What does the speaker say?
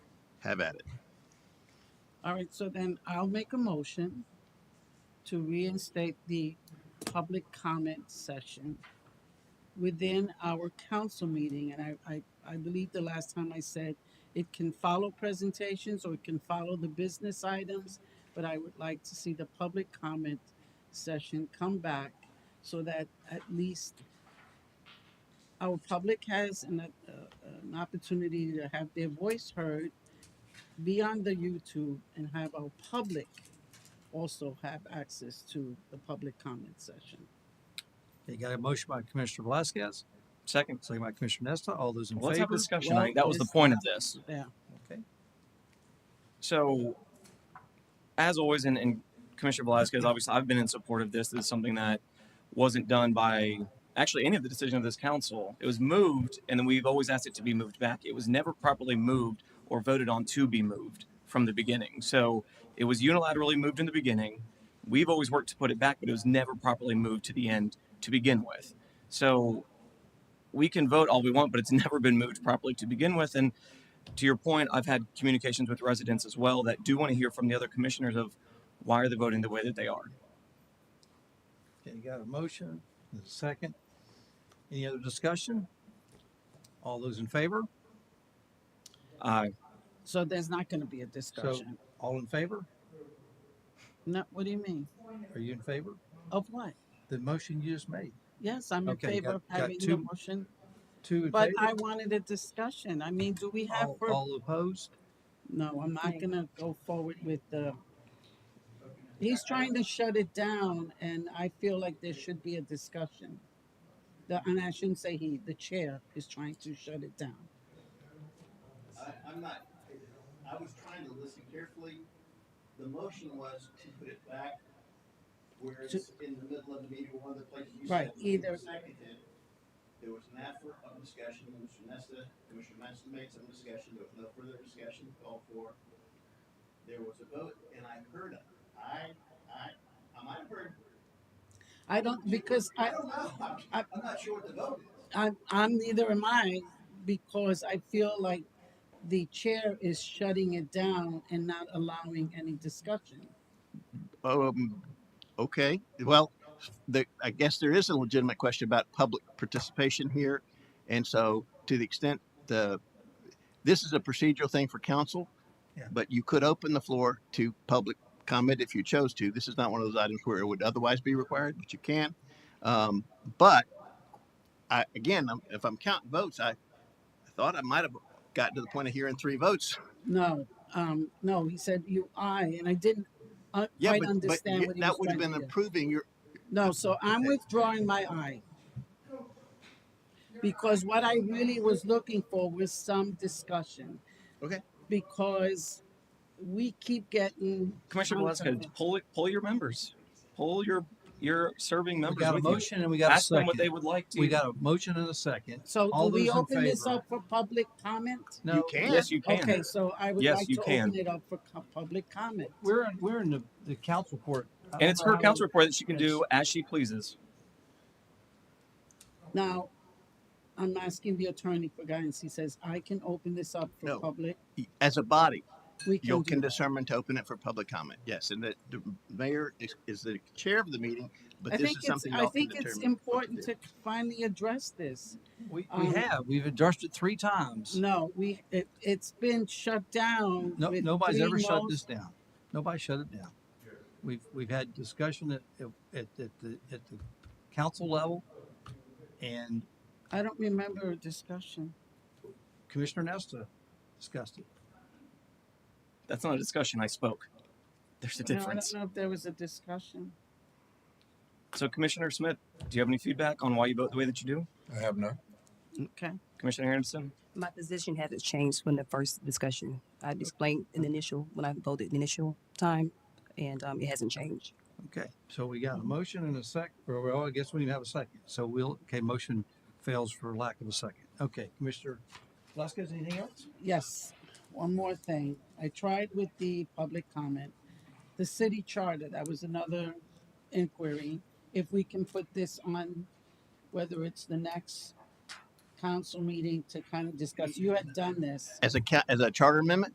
Have at it. All right, so then I'll make a motion to reinstate the public comment session within our council meeting, and I, I, I believe the last time I said it can follow presentations or it can follow the business items, but I would like to see the public comment session come back so that at least our public has an, uh, an opportunity to have their voice heard beyond the YouTube and have our public also have access to the public comment session. Okay, got a motion by Commissioner Velasquez, second, second by Commissioner Nesta. All those in Let's have a favor? discussion. Well, I think that was the this- point of this. Yeah, So, as always, and, and Commissioner Velasquez, obviously, I've been in support of this. This is something that wasn't done by actually any of the decision of this council. It was moved, and then we've always asked it to be moved back. It was never properly moved or voted on to be moved from the beginning. So it was unilaterally moved in the beginning. We've always worked to put it back, but it was never properly moved to the end to begin with. So we can vote all we want, but it's never been moved properly to begin with. And to your point, I've had communications with residents as well that do want to hear from the other commissioners of why are they voting the way that they are. Okay, got a motion, and a second. Any other discussion? All those in favor? Uh, so there's not gonna be a discussion. All in favor? No, what do you mean? Are you in favor? Of what? The motion you just made, Yes, I'm in Okay, favor got- of got having the two motion, two in but favor? I wanted a discussion. I mean, do we have, All- fur- All opposed? no, I'm not gonna go forward with the, he's trying to shut it down and I feel like there should be a discussion. The, and I shouldn't say he, the chair is trying to shut it down. I, I'm not, I was trying to listen carefully. The motion was to put it back where it's in the middle of the meeting, one of the places you said. Right, either- Seconded, there was an effort of discussion, Mr. Nesta, Commissioner Master made some discussion, there was no further discussion called for. There was a vote, and I heard it. I, I, I might have heard, I don't, because I, I don't know, I'm, I- I'm not sure what the vote is. I'm, I'm neither am I because I feel like the chair is shutting it down and not allowing any discussion. Um, okay, well, there, I guess there is a legitimate question about public participation here. And so to the extent the, this is a procedural thing for council. Yeah. But you could open the floor to public comment if you chose to. This is not one of those items where it would otherwise be required, but you can. Um, but I, again, I'm- if I'm counting votes, I thought I might have gotten to the point of hearing three votes. No, um, no, he said you, I, and I didn't uh, Yeah, quite but, but understand what he was that would have trying been to do. approving your, No, so I'm withdrawing my I. Because what I really was looking for was some discussion. Okay. Because we keep getting. Commissioner Okay. Velasquez, pull it, pull your members, pull your your serving We members. got a with you. motion and we got a Ask them what they second. would like to. We got a motion and a second. So do All we those in open this favor? up for public comment? you No, can. yes, you can. Okay, so I would Yes, like you to can. open it up for co- public comment. we're, in- we're in the, the council court. I don't And it's know her um, how council we- report that she can do as she pleases. Now, I'm asking the attorney for guidance. He says, I can open this up for No. public. as a body, We can You do can that. determine to open it for public comment, yes, and that the mayor is, is the chair of the meeting, but I this think is it's, something I y'all can think it's determine. important to finally address this. We, we um, have, we've addressed it three times. No, we, it, it's been shut down. No, with nobody's three ever shut noes. this down. Nobody shut it down. We've, we've had discussion at, at, at the, at the council level. And I don't remember a discussion. Commissioner Nesta discussed it. That's not a discussion. I spoke. There's a No, I difference. don't know if there was a discussion. So Commissioner Smith, do you have any feedback on why you vote the way that you do? I have none. Okay. Commissioner Anderson? My position hasn't changed from the first discussion. I explained in the initial, when I voted the initial time, and um, it hasn't changed. Okay, so we got a motion and a sec, or well, I guess we didn't have a second. So we'll, okay, motion fails for lack of a second. Okay, Commissioner Velasquez, anything else? Yes, one more thing. I tried with the public comment. The city charter, that was another inquiry. If we can put this on, whether it's the next council meeting to kind of discuss, you had done this. As a, ca- as a charter amendment,